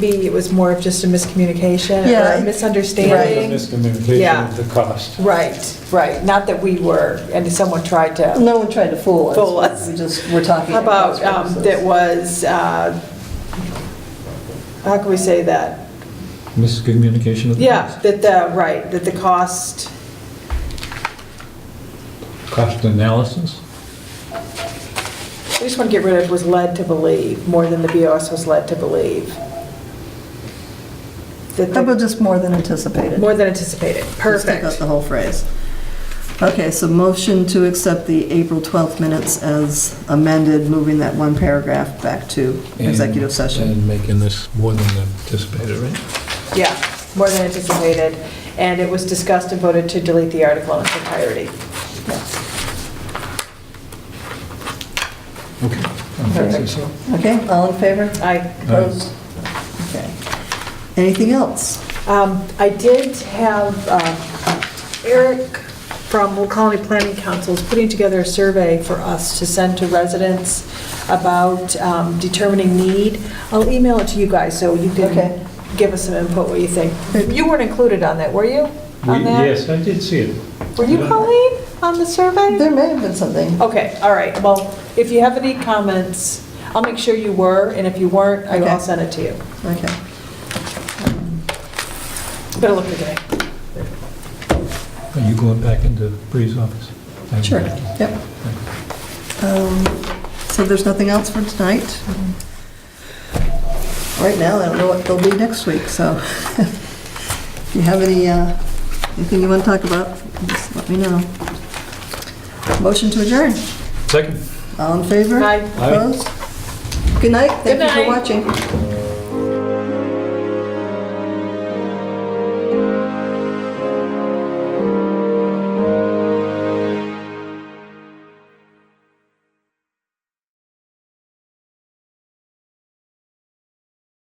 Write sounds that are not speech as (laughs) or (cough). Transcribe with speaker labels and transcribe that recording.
Speaker 1: Maybe it was more of just a miscommunication or
Speaker 2: Yeah,
Speaker 1: a
Speaker 2: it-
Speaker 3: There
Speaker 1: misunderstanding.
Speaker 3: was a miscommunication
Speaker 1: Yeah.
Speaker 3: of the cost.
Speaker 1: Right, right, not that we were, and someone tried to.
Speaker 2: No one tried to fool us.
Speaker 1: Fool us.
Speaker 2: We just, we're talking.
Speaker 1: How about,
Speaker 2: about
Speaker 1: um, that was, uh, how can we say that?
Speaker 4: Miscommunication of the
Speaker 1: Yeah,
Speaker 4: past.
Speaker 1: that the, right, that the cost,
Speaker 4: Cost analysis.
Speaker 1: I just want to get rid of was led to believe, more than the BOS was led to believe. That
Speaker 2: How about
Speaker 1: the-
Speaker 2: just more than anticipated?
Speaker 1: More than anticipated,
Speaker 2: Just take out
Speaker 1: perfect.
Speaker 2: the whole phrase. Okay, so motion to accept the April 12th minutes as amended, moving that one paragraph back to
Speaker 4: and-
Speaker 2: executive session.
Speaker 4: And making this more than anticipated, right?
Speaker 1: Yeah, more than anticipated, and it was discussed and voted to delete the article in its entirety.
Speaker 4: Okay. Um,
Speaker 2: Perfect.
Speaker 4: so-
Speaker 2: Okay, all in favor?
Speaker 1: I
Speaker 2: Opposed? Okay. Anything else?
Speaker 1: Um, I did have uh, Eric from Will Colony Planning Council is putting together a survey for us to send to residents about um, determining need. I'll email it to you guys, so you
Speaker 2: Okay.
Speaker 1: can give us some input, what you think. You weren't included on that, were you?
Speaker 3: We-
Speaker 1: On that?
Speaker 3: Yes, I did see it.
Speaker 1: Were you, Colleen, on the survey?
Speaker 2: There may have been something.
Speaker 1: Okay, all right, well, if you have any comments, I'll make sure you were, and if you weren't, I-
Speaker 2: Okay.
Speaker 1: I'll send it to you.
Speaker 2: Okay.
Speaker 1: Better look today.
Speaker 4: Are you going back into Bree's office? I'm-
Speaker 2: Sure, yep. Um, So there's nothing else for tonight? Right now, I don't know what they'll be next week, so (laughs) if you have any, uh, anything you want to talk about, just let me know. Motion to adjourn.
Speaker 4: Second.
Speaker 2: All in favor?
Speaker 1: Aye.
Speaker 2: Opposed? Good night, thank you
Speaker 1: Good night.
Speaker 2: for watching.